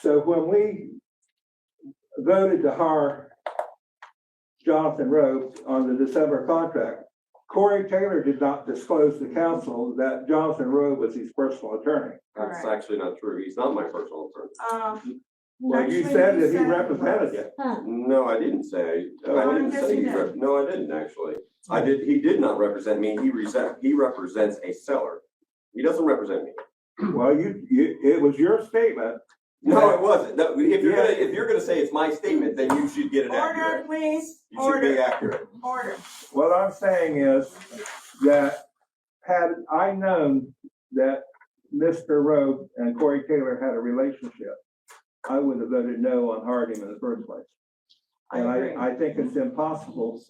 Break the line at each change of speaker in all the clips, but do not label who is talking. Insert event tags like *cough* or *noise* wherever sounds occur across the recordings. So when we voted to hire Jonathan Rowe on the December contract, Corey Taylor did not disclose to council that Jonathan Rowe was his personal attorney.
That's
Correct.
actually not true. He's not my personal attorney.
Um.
Well, you
actually,
said that he
said
represented
was.
you.
No, I didn't say, I
Oh,
didn't
yes,
say
you
he
did.
rep, no, I didn't actually. I
Hmm.
did, he did not represent me. He resent, he represents a seller. He doesn't represent me.
Well, you, you, it was your statement.
No, it wasn't. No, if you're gonna, if you're gonna say it's my statement, then you should get it
Order,
accurate.
please,
You should be
order,
accurate.
order.
What I'm saying is that had I known that Mr. Rowe and Corey Taylor had a relationship, I would have voted no on hiring him in the first place.
I
And
agree.
I, I think it's impossible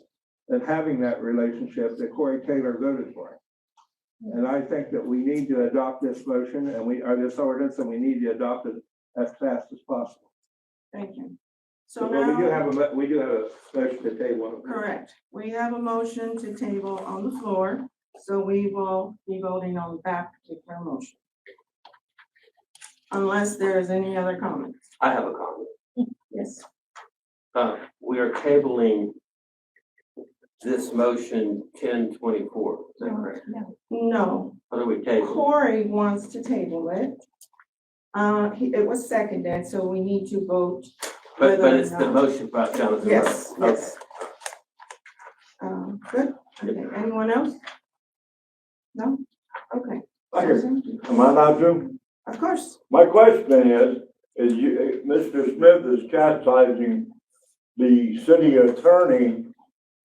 that having that relationship that Corey Taylor voted for. him. And I think that we need to adopt this motion and we, or this ordinance, and we need to adopt it as fast as possible.
Thank you. So
But we do
now,
have a, mo- we do have a motion to table.
correct, we have a motion to table on the floor, so we will be voting on that particular motion. Unless there is any other comments.
I have a comment.
Yes.
Uh, we are tabling this motion ten twenty-four, is that correct?
No,
What are we tabling?
Corey wants to table it. Uh, he, it was seconded, so we need to vote.
But, but
whether or
it's the
not-
motion about Jonathan Rowe.
Yes, yes. Um, good, okay, anyone else? No? Okay. Susan?
Am I not true?
Of course,
My question is, is you,
uh,
Mr. Smith is chastising the city attorney,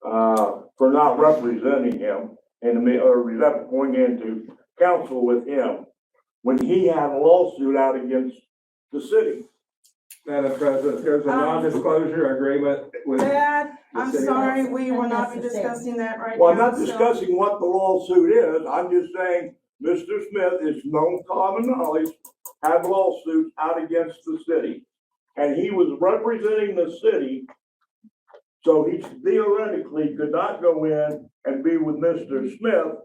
uh, for not representing him and, me- or rep- going into counsel with him when he had a lawsuit out against the city.
Madam President, there's a
Um,
non-disclosure agreement with.
Dad, I'm
Yes,
sorry, we will not be
Unnecessary.
discussing that right now.
Well, I'm not
so-
discussing what the lawsuit is, I'm just saying, Mr. Smith, it's known common knowledge, had lawsuits out against the city. And he was representing the city, so he theoretically could not go in and be with Mr. Smith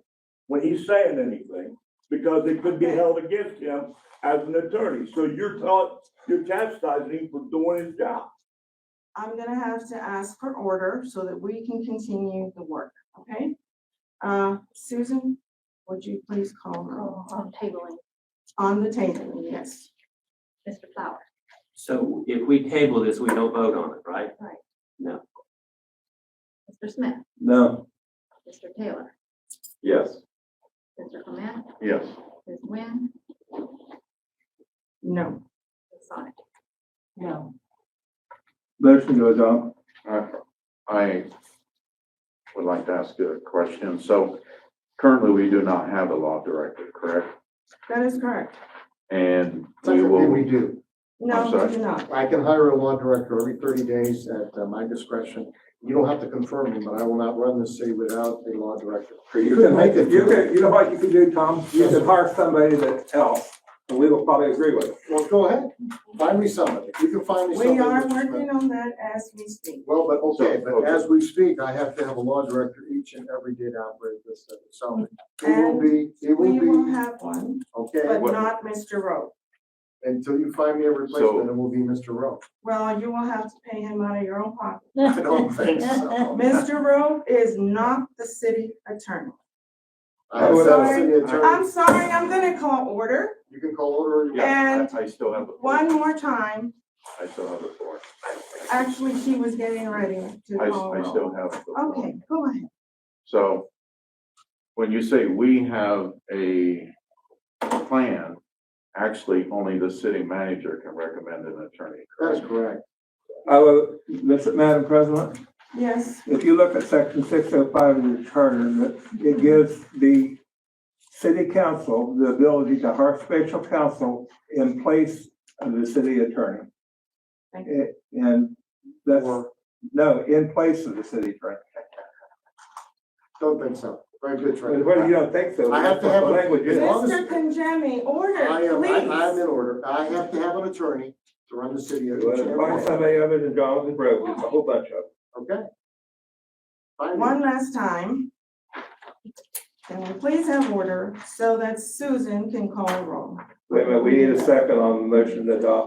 when he's saying anything, because it could be held against him as an attorney. So you're taught, you're chastising him for doing his job.
I'm gonna have to ask for order so that we can continue the work, okay? Uh, Susan, would you please call her
Oh, on tabling,
on the table, yes?
Mr. Flower.
So if we table this, we don't vote on it, right?
Mr. Smith,
No.
Mr. Taylor,
Yes.
Mr. Clement,
Yes.
Ms. Nguyen,
No.
Ms. Sonic.
No.
Motion to adopt.
I would like to ask a question. So currently, we do not have a law director, correct?
That is correct.
And we
Technically, we
will,
do.
No,
sorry.
we do not.
I can hire a law director every thirty days at uh, my discretion. You don't have to confirm me, but I will not run this city without a law director.
You can make it, you can, you know what you can do, Tom? You
Yes,
can
sir.
hire somebody that else, and we will probably agree with it.
Well, go ahead, find me somebody. If you can find me somebody.
We are
Mr. Smith.
working on that as we speak.
Well, but okay, but
Okay.
as we speak, I have to have a law director each and every day to operate this city. So it will be,
We
it
will
will be,
have one,
okay,
but
what-
not Mr. Rowe.
until you find me a replacement, it will be Mr. Rowe. *laughs*
Well, you will have to pay him out of your own pocket.
I don't
*laughs*
think so.
Mr. Rowe is not the city attorney.
I would have a
Sorry.
city attorney.
I'm sorry, I'm gonna call order
You can call order. or you-
yeah,
And
I I still have the
one
floor.
more time.
I still have the floor.
Actually, she was getting ready to
I,
call.
I
Rowe.
still have the floor.
Oh. Okay, go ahead.
So when you say we have a plan, actually, only the city manager can recommend an attorney,
That
correct?
is correct.
I will, Miss- Madam President,
Yes,
if you look at section six oh five of the charter, it- it gives the city council the ability to hire special counsel in place of the city attorney.
Thank
It- And that's, no, in place of the city attorney.
Don't think so. Very good, Trent.
Well, you don't think so.
I have to have
The
a-
language is.
As long as-
Mr. Panjami,
I
order,
am, I- I'm
please.
in order. I have to have an attorney to run the city. of-
Well, Find somebody other than Jonathan Rowe, there's a whole bunch of them.
Okay? Fine.
One last time. Can we please have order so that Susan can call roll?
uh,
Wait a minute, we need a second on the motion to adopt.